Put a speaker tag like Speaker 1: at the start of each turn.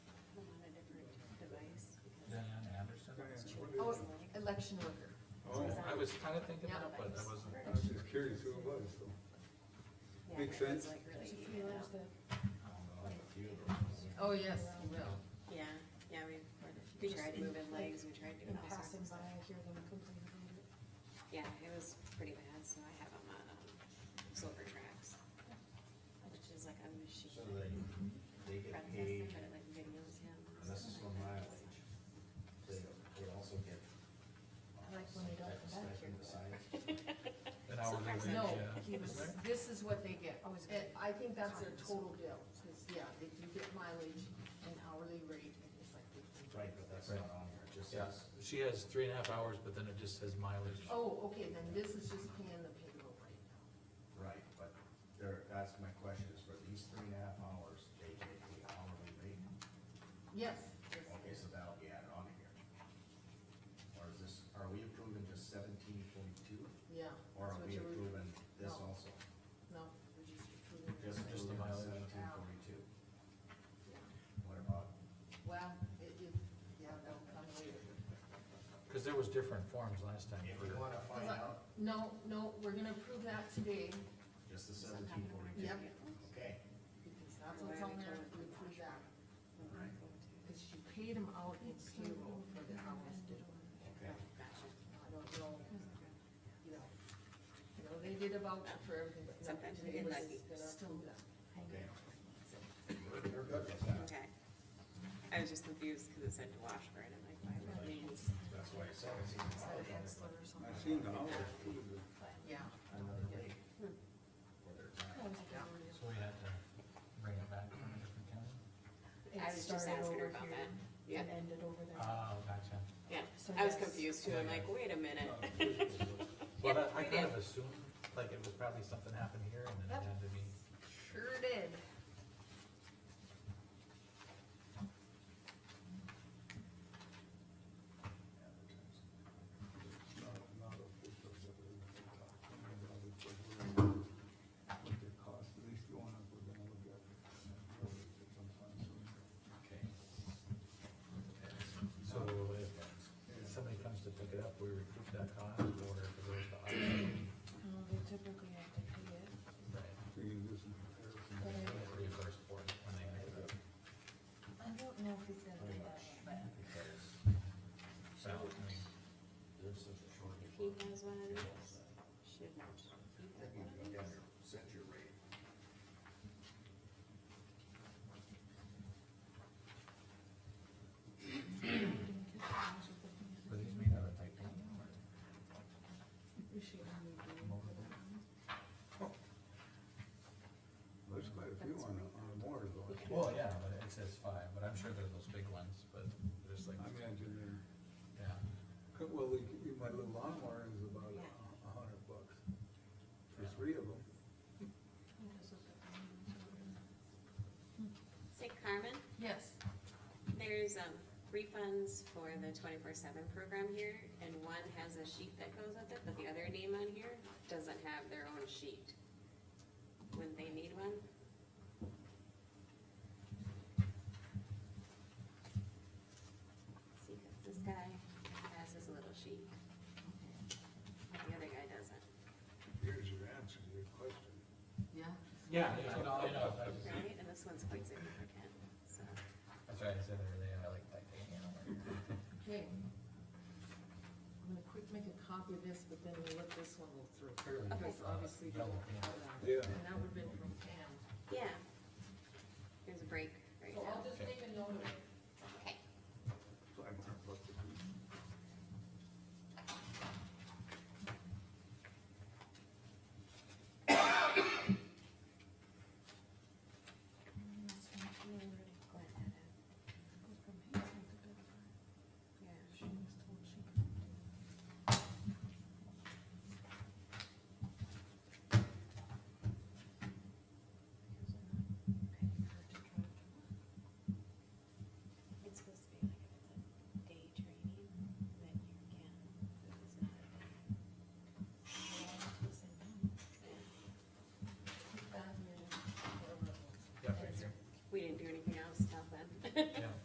Speaker 1: election worker.
Speaker 2: Oh, I was kinda thinking that, but I wasn't.
Speaker 3: I was just curious who it was, so. Makes sense.
Speaker 1: Oh, yes, he will.
Speaker 4: Yeah, yeah, we, we tried moving legs, we tried doing
Speaker 5: In
Speaker 4: all sorts
Speaker 5: passing
Speaker 4: of
Speaker 5: by,
Speaker 4: stuff.
Speaker 5: I hear them complain about it.
Speaker 4: Yeah, it was pretty bad, so I have them on, um, silver tracks. Which is like a machine.
Speaker 6: So they, they
Speaker 4: Fred does
Speaker 6: get
Speaker 4: the
Speaker 6: paid,
Speaker 4: credit like videos, yeah.
Speaker 6: and this is for mileage, they, they also get. uh,
Speaker 5: Like when they
Speaker 6: some
Speaker 5: don't
Speaker 6: type of
Speaker 5: come back here.
Speaker 6: stipend besides.
Speaker 2: An hourly
Speaker 4: Sometimes
Speaker 2: wage,
Speaker 1: No,
Speaker 2: yeah.
Speaker 1: he was,
Speaker 2: Isn't there?
Speaker 1: this is what they get.
Speaker 5: Always
Speaker 1: And I think that's their
Speaker 5: Cars.
Speaker 1: total bill, cause yeah, they do get mileage and hourly rate, and it's like fifteen.
Speaker 6: Right, but that's not on here, it just
Speaker 2: Yeah,
Speaker 6: says,
Speaker 2: she has three and a half hours, but then it just says mileage.
Speaker 1: Oh, okay, then this is just paying the payroll right now.
Speaker 6: right, but there, that's my question, is for these three and a half hours, they get the hourly rate?
Speaker 1: Yes, yes.
Speaker 6: Okay, so that'll be added on here. Or is this, are we approving just seventeen forty-two,
Speaker 1: yeah.
Speaker 6: or
Speaker 1: that's
Speaker 6: are
Speaker 1: what you
Speaker 6: we
Speaker 1: were-
Speaker 6: approving this
Speaker 1: No.
Speaker 6: also?
Speaker 1: No, we're just approving it.
Speaker 6: Just,
Speaker 2: Just the mileage.
Speaker 6: Seventeen forty-two,
Speaker 1: Yeah.
Speaker 6: what about?
Speaker 1: Well, it, it, yeah, that'll come later.
Speaker 2: Cause there was different forms last time
Speaker 6: If
Speaker 2: for,
Speaker 6: you wanna find
Speaker 1: Cause I-
Speaker 6: out,
Speaker 1: No, no, we're gonna approve that today,
Speaker 6: just the
Speaker 4: Sometimes
Speaker 6: seventeen
Speaker 4: when I
Speaker 6: forty-two,
Speaker 1: Yep.
Speaker 4: get them,
Speaker 6: okay,
Speaker 1: because that's what's on there, we approve that.
Speaker 4: I'm like, oh, dude.
Speaker 1: Cause she paid him out in payroll for the hours did.
Speaker 6: okay.
Speaker 4: Gotcha.
Speaker 1: I don't know, you know, you know, they did a voucher for everything, but nothing,
Speaker 4: Sometimes they
Speaker 1: they
Speaker 4: get
Speaker 1: was
Speaker 4: lucky.
Speaker 1: gonna approve that.
Speaker 6: Okay. We're good with that.
Speaker 4: Okay. I was just confused because it said to Washburn, I'm like, why would they use?
Speaker 6: That's why it's seventeen dollars on the-
Speaker 5: Or something.
Speaker 3: I seen the hours, too, but
Speaker 1: Yeah,
Speaker 6: another rate
Speaker 1: Hmm.
Speaker 6: for their time.
Speaker 5: Always get worried.
Speaker 2: so we had to bring it back from a different county.
Speaker 5: It
Speaker 4: I was just
Speaker 5: started
Speaker 4: asking her
Speaker 5: over
Speaker 4: about
Speaker 5: here
Speaker 4: that. Yeah.
Speaker 5: And ended over there.
Speaker 2: Oh, gotcha.
Speaker 4: Yeah,
Speaker 5: So
Speaker 4: I was
Speaker 5: yes.
Speaker 4: confused too, I'm like, wait a minute.
Speaker 2: But
Speaker 4: Yeah, we
Speaker 2: I, I kind
Speaker 4: did.
Speaker 2: of assumed, like, it was probably something happened here and then it had to be,
Speaker 1: sure did.
Speaker 3: not, not official, but we can talk to them about it, but we're- What they cost, at least the one up, we're gonna look at. it, uh, sometime soon.
Speaker 6: Okay.
Speaker 2: so if somebody comes to pick it up, we recoup that cost or if it goes to auction.
Speaker 6: Uh-huh.
Speaker 5: No, They typically have to pay it,
Speaker 2: Right.
Speaker 3: So you can do some comparison.
Speaker 5: but I,
Speaker 2: Get reimbursed for it when they pick it up.
Speaker 5: I don't know if he's gonna do
Speaker 6: Pretty
Speaker 5: that
Speaker 6: much,
Speaker 5: one, but.
Speaker 6: because
Speaker 2: So, I mean,
Speaker 6: there's such a shortage.
Speaker 4: If he has one of these, should not. He had
Speaker 6: I think
Speaker 4: one of
Speaker 6: you
Speaker 4: these.
Speaker 6: got your, set your rate.
Speaker 2: Were these made out of titanium or?
Speaker 3: There's quite a few on, the- on the board, though.
Speaker 2: Well, yeah, but it says five, but I'm sure they're those big ones, but there's like,
Speaker 3: I imagine they're-
Speaker 2: yeah.
Speaker 3: Well, we, we- my little lawnmower is about a a hundred bucks for three of them.
Speaker 4: Say Carmen,
Speaker 1: Yes,
Speaker 4: there's, um, refunds for the twenty-four seven program here, and one has a sheet that goes with it, but the other name on here doesn't have their own sheet. Wouldn't they need one? See, 'cause this guy has his little sheet. but The other guy doesn't,
Speaker 3: Here's your answer to your question.
Speaker 1: yeah.
Speaker 2: Yeah, I know, I know,
Speaker 4: right? And this one's quite significant, so.
Speaker 2: that's why I said earlier, I like titanium.
Speaker 1: Okay. I'm gonna quick make a copy of this, but then we'll let this one go through.
Speaker 2: Clearly,
Speaker 1: Because obviously.
Speaker 2: yellow, yeah.
Speaker 3: Yeah.
Speaker 1: And that would've been from Pam.
Speaker 4: Yeah,